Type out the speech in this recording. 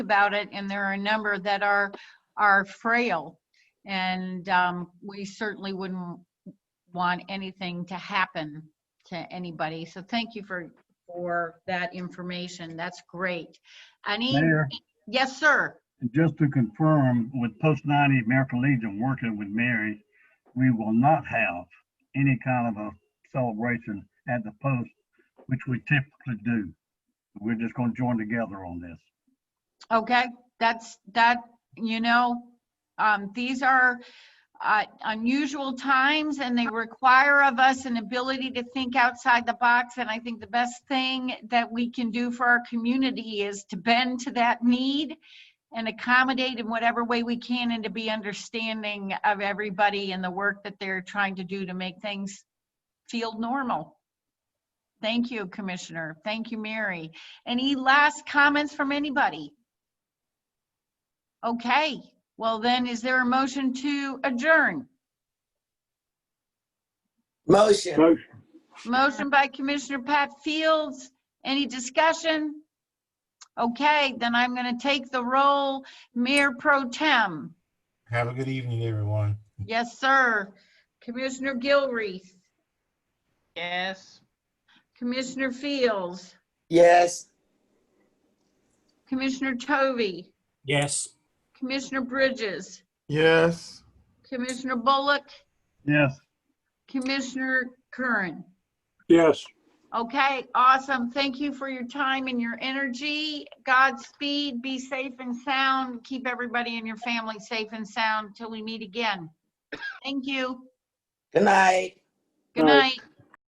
about it, and there are a number that are, are frail. And um, we certainly wouldn't want anything to happen to anybody. So thank you for, for that information. That's great. Any, Mayor, yes, sir. just to confirm, with Post 90 American Legion working with Mary, we will not have any kind of a celebration at the post, which we typically do. We're just going to join together on this. Okay, that's, that, you know, um, these are uh, unusual times and they require of us an ability to think outside the box. And I think the best thing that we can do for our community is to bend to that need and accommodate in whatever way we can and to be understanding of everybody and the work that they're trying to do to make things feel normal. Thank you, Commissioner. Thank you, Mary. Any last comments from anybody? Okay, well then, is there a motion to adjourn? Motion. Motion by Commissioner Pat Fields. Any discussion? Okay, then I'm going to take the roll. Mayor Pro Tem. Have a good evening, everyone. Yes, sir. Commissioner Gilreath. Yes. Commissioner Fields. Yes. Commissioner Tovey. Yes. Commissioner Bridges. Yes. Commissioner Bullock. Yes. Commissioner Curran. Yes. Okay, awesome. Thank you for your time and your energy. Godspeed, be safe and sound. Keep everybody and your family safe and sound till we meet again. Thank you. Good night. Good Bye. night.